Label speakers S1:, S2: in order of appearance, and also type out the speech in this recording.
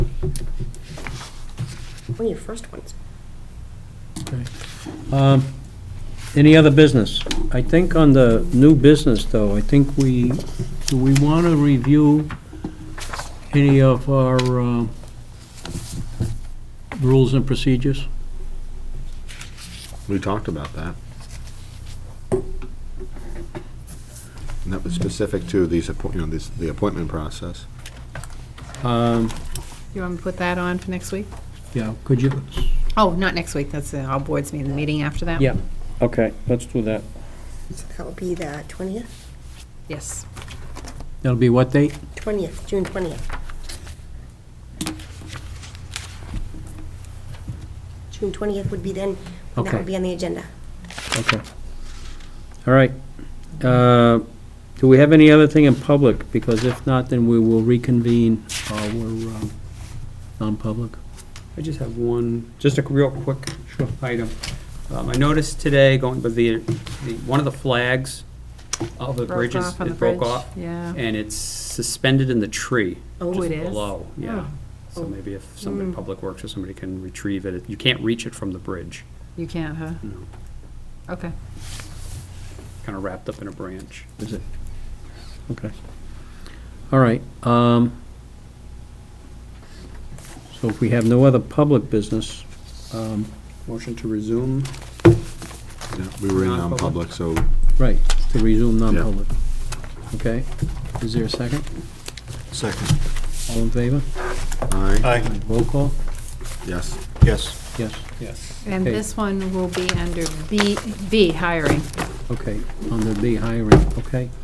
S1: One of your first ones.
S2: Um, Any other business? I think on the new business, though, I think we, do we want to review any of our um, rules and procedures?
S3: We talked about that. And that was specific to these, appoint- you know, this, the appointment process.
S2: Um,
S4: You want me to put that on for next week?
S2: Yeah, could you?
S4: Oh, not next week, that's uh, all boards meeting, the meeting after that?
S2: Yeah, okay, let's do that.
S1: So that will be the 20th,
S4: Yes.
S2: That'll be what date?
S1: 20th, June 20th. June 20th would be then, and that
S2: Okay.
S1: would be on the agenda.
S2: Okay. All right. Uh, Do we have any other thing in public? Because if not, then we will reconvene our um, non-public.
S5: I just have one, just a real quick item. Um, I noticed today going, but the, the, one of the flags of the
S4: Broke
S5: bridges,
S4: off on the
S5: it broke
S4: bridge,
S5: off.
S4: yeah.
S5: And it's suspended in the tree.
S1: Oh,
S5: just
S4: it is? Hmm.
S5: Below,
S1: Oh.
S5: yeah. So maybe if somebody, Public Works or somebody can retrieve it, you can't reach it from the bridge,
S4: You can't, huh?
S5: you know,
S4: Okay.
S5: kind of wrapped up in a branch.
S2: Is it? Okay. All right. um, So if we have no other public business, um,
S5: Motion to resume.
S3: Yeah, We were in
S5: Non-public.
S3: non-public, so
S2: right, to resume non-public. Okay? Is there a second?
S6: Second.
S2: All in favor?
S3: aye,
S6: Aye.
S2: Roll call?
S3: yes.
S6: Yes.
S2: Yes.
S5: Yes.
S4: And
S2: Okay.
S4: this one will be under B, B, hiring.
S2: Okay. On the B hiring, okay?